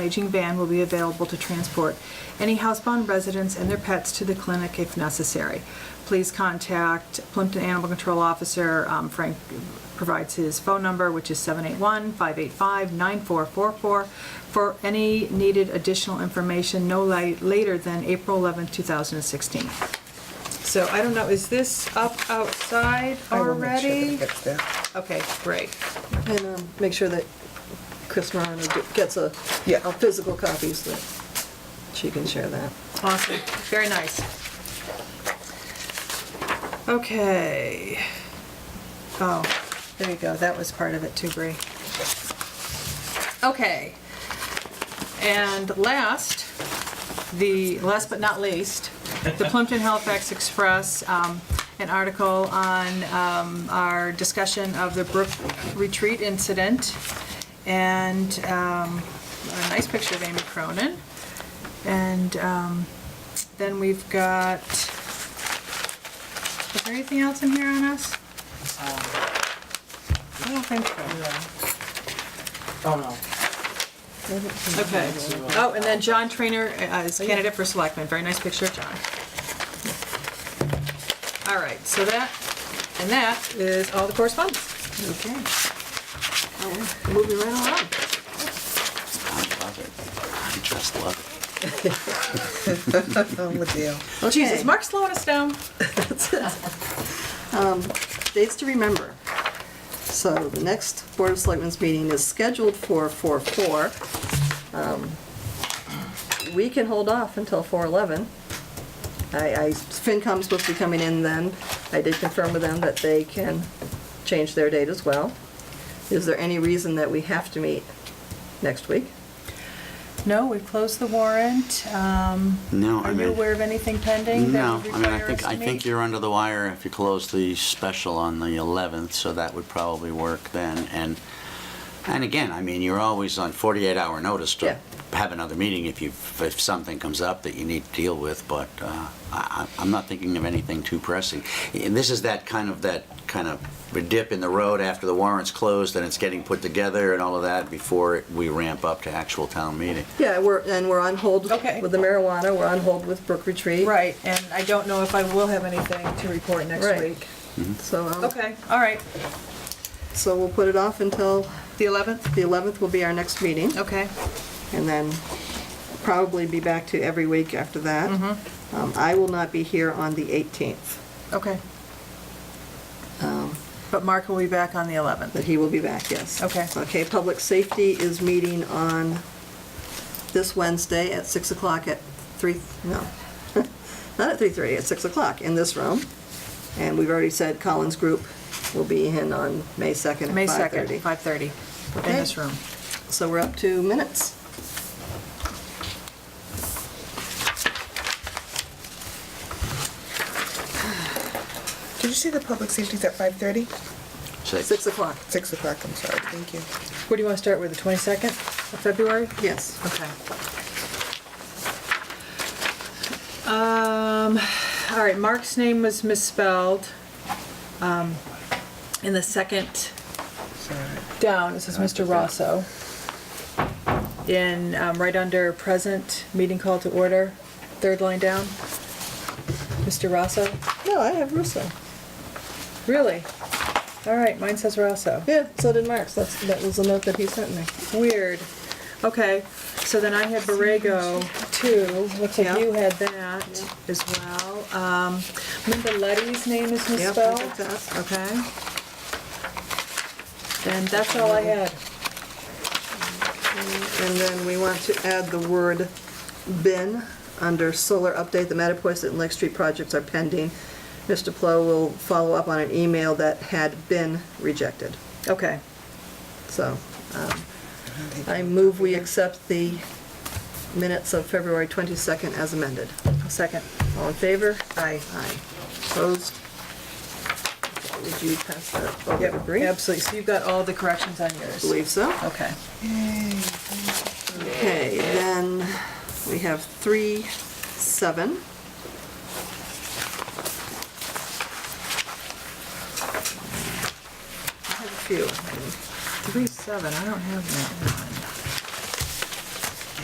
Aging van will be available to transport any housebound residents and their pets to the clinic if necessary. Please contact Plimpton Animal Control Officer, um, Frank provides his phone number, which is 781-585-9444, for any needed additional information no la- later than April 11th, 2016. So I don't know, is this up outside I will make sure that already? it gets there. Okay, great. And um, make sure that Chris Marano ge- gets a, Yeah. a physical copy so that she can share that. Awesome, very nice. Okay. Oh, there you go, that was part of it too, Bree. Okay. And last, the, last but not least, the Plimpton Halifax Express, um, an article on um, our discussion of the Brook Retreat incident, and um, a nice picture of Amy Cronin. And um, then we've got, is there anything else in here on us? Um, I don't think so. Oh, no. Okay. Oh, and then John Trainer uh, is candidate for selectman. Very nice picture of John. All right, so that, and that is all the correspondence. Okay. Oh, Moving right along. love it. I just love it. I'm with you. Well, Jesus, Okay. Mark's slowing us down. Um, Dates to remember. So the next Board of Selectmen's meeting is scheduled for 4/4. Um, We can hold off until 4/11. I, I, FinCom's supposed to be coming in then. I did confirm with them that they can change their date as well. Is there any reason that we have to meet next week? No, we've closed the warrant. Um, No, I Are you mean- aware of anything pending that No, would I mean, I require us think, to I think meet? you're under the wire if you close the special on the 11th, so that would probably work then. And, and again, I mean, you're always on 48-hour notice Yeah. to have another meeting if you, if something comes up that you need to deal with, but uh, I, I- I'm not thinking of anything too pressing. And this is that kind of, that kind of dip in the road after the warrant's closed and it's getting put together and all of that before we ramp up to actual town meeting. Yeah, we're, and we're on hold Okay. with the marijuana, we're on hold with Brook Retreat. Right, and I don't know if I will have anything to report next Right. week. So, um, Okay, all right. so we'll put it off until The 11th? the 11th will be our next meeting, Okay. and then probably be back to every week after that. Mm-hmm. Um, I will not be here on the 18th, Okay. Um, But Mark will be back on the 11th. but he will be back, yes. Okay. Okay, Public Safety is meeting on this Wednesday at 6 o'clock at 3, no, not at 3:30, at 6 o'clock in this room. And we've already said Collins Group will be in on May 2nd May at 5:30. 2nd, 5:30, in Okay. this room. So we're up to minutes. Did you see the public safety's at 5:30? So 6 o'clock, 6 o'clock, I'm sorry, thank you. Where do you want to start with, the 22nd of February? yes. Okay. Um, all right, Mark's name was misspelled. um, In the second Sorry. down, it says Mr. Rosso. In, um, right under present, meeting call to order, third line down. Mr. Rosso? No, I have Russo. Really? All right, mine says Rosso. Yeah, so did Mark's. That's, that was the note that he sent me. Weird. Okay, so then I had Borrego too. Looks Yeah. like you had that as well. Um, Linda Letty's name is Yep, misspelled. I got that. Okay. And that's all I had. And then we want to add the word bin under solar update. The Matipoiset and Lake Street projects are pending. Mr. Plow will follow up on an email that had been rejected. Okay. So um, I move we accept the minutes of February 22nd as amended. I'll Second. All in favor? Aye. Aye. Opposed? Okay, Would you pass that over Yep, to Bree? absolutely. So you've got all the corrections on yours. Believe so. Okay. Okay, then we have three, seven. I have a few. Three, seven, I don't have that one.